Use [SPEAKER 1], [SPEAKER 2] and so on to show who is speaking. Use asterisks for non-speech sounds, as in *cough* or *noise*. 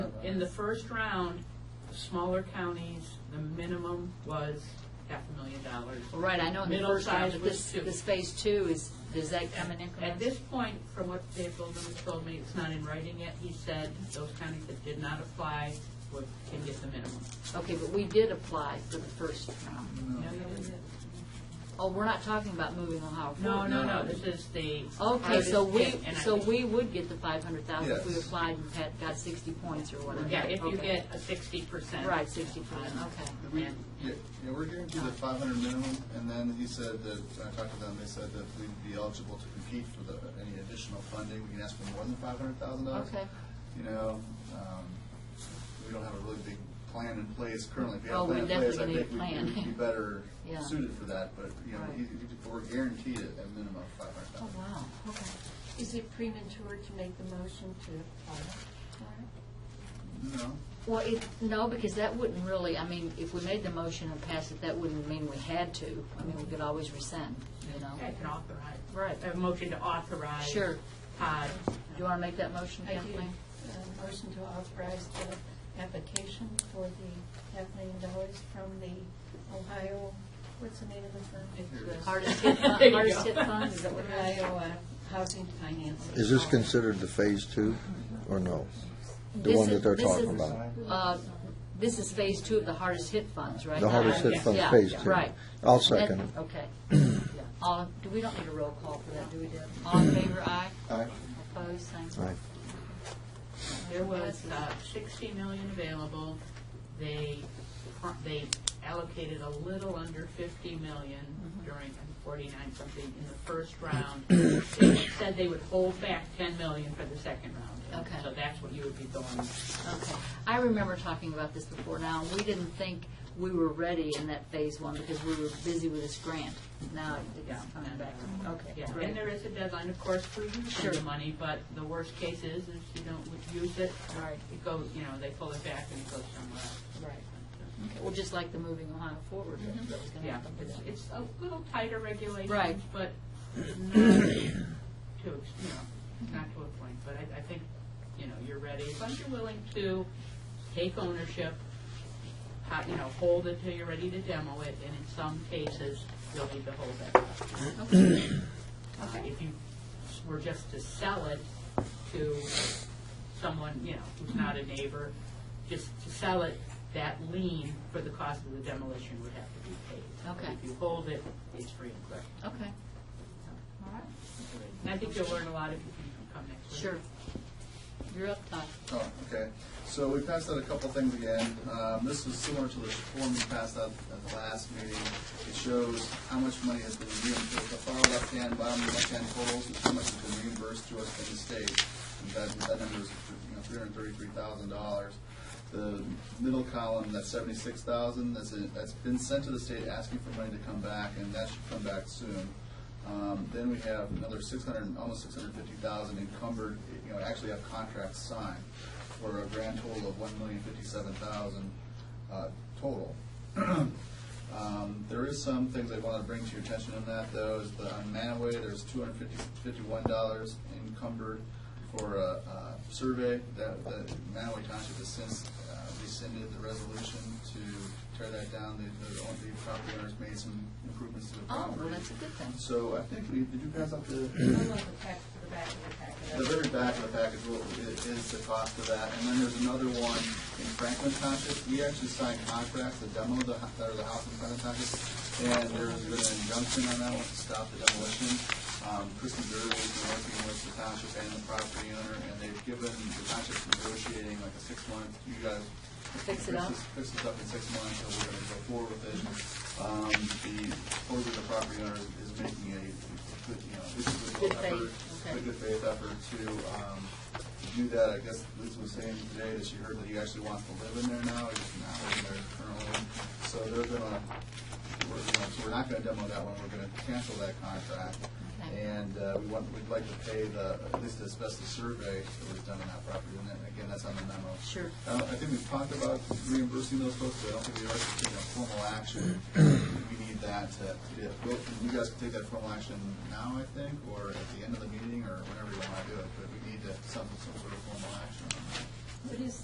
[SPEAKER 1] In the first round, smaller counties, the minimum was half a million dollars.
[SPEAKER 2] Well, Right, I know in the
[SPEAKER 1] Middle
[SPEAKER 2] first round,
[SPEAKER 1] size
[SPEAKER 2] but
[SPEAKER 1] was
[SPEAKER 2] this,
[SPEAKER 1] two.
[SPEAKER 2] this phase two is, does that come in
[SPEAKER 1] At
[SPEAKER 2] increments?
[SPEAKER 1] this point, from what Dave Goldman has told me, it's not in writing yet, he said those counties that did not apply would, can get the minimum.
[SPEAKER 2] Okay, but we did apply for the first round. Oh, we're not talking about moving Ohio
[SPEAKER 1] No,
[SPEAKER 2] forward?
[SPEAKER 1] no, no, this is the.
[SPEAKER 2] Okay, so
[SPEAKER 1] hardest
[SPEAKER 2] we,
[SPEAKER 1] hit, and I
[SPEAKER 2] so
[SPEAKER 1] think-
[SPEAKER 2] we would get the five hundred thousand if we
[SPEAKER 3] Yes.
[SPEAKER 2] applied and had, got sixty points or whatever.
[SPEAKER 1] Yeah, if you
[SPEAKER 2] Okay.
[SPEAKER 1] get a sixty percent.
[SPEAKER 2] Right, sixty percent, okay.
[SPEAKER 3] We, yeah, yeah, we're guaranteed a five hundred minimum, and then he said that, when I talked to them, they said that we'd be eligible to compete for the, any additional funding, we can ask for more than five hundred thousand dollars.
[SPEAKER 2] Okay.
[SPEAKER 3] You know, um, we don't have a really big plan in place currently, if we had a
[SPEAKER 2] Oh, we
[SPEAKER 3] plan in place, I
[SPEAKER 2] definitely
[SPEAKER 3] think
[SPEAKER 2] need a
[SPEAKER 3] we'd- we'd be
[SPEAKER 2] plan.
[SPEAKER 3] better
[SPEAKER 2] *laughs* Yeah.
[SPEAKER 3] suited for that, but, you know,
[SPEAKER 2] Right.
[SPEAKER 3] he- he- we're guaranteed a a minimum of five hundred
[SPEAKER 2] Oh,
[SPEAKER 3] thousand.
[SPEAKER 2] wow, okay.
[SPEAKER 4] Is it premature to make the motion to uh, apply for it?
[SPEAKER 3] No,
[SPEAKER 2] Well, it, no, because that wouldn't really, I mean, if we made the motion and passed it, that wouldn't mean we had to. I mean, we could always rescind, you know?
[SPEAKER 1] I can authorize.
[SPEAKER 2] Right.
[SPEAKER 1] A motion to authorize.
[SPEAKER 2] Sure.
[SPEAKER 1] Todd.
[SPEAKER 2] Do you want to make that motion,
[SPEAKER 4] I do,
[SPEAKER 2] Kathleen?
[SPEAKER 4] uh, motion to authorize the application for the half million dollars from the Ohio, what's the name of the firm?
[SPEAKER 2] Hardest hit
[SPEAKER 1] There
[SPEAKER 2] fund,
[SPEAKER 1] you
[SPEAKER 2] hardest
[SPEAKER 1] go.
[SPEAKER 2] hit fund, is that what it is?
[SPEAKER 4] Ohio uh, Housing Finance.
[SPEAKER 5] Is this considered the phase two, or no? The
[SPEAKER 2] This
[SPEAKER 5] one
[SPEAKER 2] is-
[SPEAKER 5] that they're
[SPEAKER 2] this
[SPEAKER 5] talking
[SPEAKER 2] is,
[SPEAKER 5] about?
[SPEAKER 2] uh, This is phase two of the hardest hit funds, right?
[SPEAKER 5] The hardest hit
[SPEAKER 2] Yeah,
[SPEAKER 5] fund,
[SPEAKER 2] Uh, yeah,
[SPEAKER 5] phase two.
[SPEAKER 2] Right.
[SPEAKER 5] I'll second it.
[SPEAKER 2] Okay. Yeah. All, do, we don't need a roll call for that, do we, Deb? All in favor, aye?
[SPEAKER 3] Aye.
[SPEAKER 2] Opposed, same
[SPEAKER 5] Aye.
[SPEAKER 2] sign.
[SPEAKER 1] There was uh, 60 million available. They, pro- they allocated a little under 50 million
[SPEAKER 2] Mm-hmm.
[SPEAKER 1] during, 49 something in the first round. They Said they would hold back 10 million for the second round.
[SPEAKER 2] Okay.
[SPEAKER 1] So that's what you would be going,
[SPEAKER 2] Okay. I remember talking about this before now, and we didn't think we were ready in that phase one because we were busy with this grant. Now
[SPEAKER 1] Yeah.
[SPEAKER 2] it's coming back. Okay,
[SPEAKER 1] yeah. And
[SPEAKER 2] great.
[SPEAKER 1] there is a deadline, of course, for using the
[SPEAKER 2] Sure.
[SPEAKER 1] money, but the worst case is, is you don't use it.
[SPEAKER 2] Right.
[SPEAKER 1] It goes, you know, they pull it back and it goes somewhere else.
[SPEAKER 2] Right. Okay, Well, just like the moving Ohio forward, that that was going to
[SPEAKER 1] Mm-hmm. Yeah,
[SPEAKER 2] happen.
[SPEAKER 1] it's, it's a little tighter
[SPEAKER 2] Right.
[SPEAKER 1] regulations, but not to, ex- you know, not to a point, but I, I think, you know, you're ready, as long as you're willing to take ownership, ho- you know, hold it till you're ready to demo it, and in some cases, you'll need to hold it. Uh, If you s- were just to sell it to someone, you know, who's not a neighbor, just to sell it, that lien for the cost of the demolition would have to be paid.
[SPEAKER 2] Okay.
[SPEAKER 1] If you hold it, it's free and clear.
[SPEAKER 2] Okay. All right.
[SPEAKER 1] And I think you'll learn a lot if you come next week.
[SPEAKER 2] Sure. You're up, Todd.
[SPEAKER 3] Oh, okay. So we passed out a couple things again. Um, This was similar to the form we passed out at the last meeting. It shows how much money has been reimbursed, the far left-hand, bottom left-hand totals, is how much has been reimbursed to us from the state. And that, that number is, you know, three hundred and thirty-three thousand dollars. The middle column, that's seventy-six thousand, that's, it- that's been sent to the state asking for money to come back, and that should come back soon. Um, Then we have another six hundred, almost six hundred fifty thousand encumbered, you know, actually have contracts signed for a grand total of one million fifty-seven thousand uh, total. *clears throat* Um, There is some things I want to bring to your attention on that, though, is the, on Manaway, there's two hundred fifty-one dollars encumbered for a uh, survey that, that Manaway Township has since uh, rescinded the resolution to tear that down. The, the the property owners made some improvements to the
[SPEAKER 2] Oh,
[SPEAKER 3] property.
[SPEAKER 2] well, that's a good thing.
[SPEAKER 3] So I think we, did you pass out the,
[SPEAKER 4] I love the pack, the back of the packet.
[SPEAKER 3] the very back of the package will- i- is the cost of that. And then there's another one in Franklin Township. We actually signed contracts to demo the, hu- or the house in Franklin Township. And there's been an injunction on that one to stop the demolition. Um, Kristen Durley has been working with the township and the property owner, and they've given, the township's negotiating like a six-month, you guys
[SPEAKER 2] Fix it up?
[SPEAKER 3] this- Fix this up in six months, so we're gonna go forward with it. Um, the, supposedly the property owner is making a, good, you know, this is a good
[SPEAKER 2] Good faith,
[SPEAKER 3] effort.
[SPEAKER 2] okay.
[SPEAKER 3] A good faith effort to, um, do that. I guess Liz was saying today that she heard that he actually wants to live in there now, he's not living there currently. So they're gonna, we're, you know, so we're not gonna demo that one, we're gonna cancel that contract.
[SPEAKER 2] Okay.
[SPEAKER 3] And, uh, we want, we'd like to pay the, at least as best the survey that was done on that property, and then, again, that's on the memo.
[SPEAKER 2] Sure.
[SPEAKER 3] I don't- Uh, I think we've talked about reimbursing those folks, but I don't think we are taking a formal action. We need that to, well, you guys can take that formal action now, I think, or at the end of the meeting, or whenever you want to do it, but we need to- some, some sort of formal action on that.
[SPEAKER 4] What is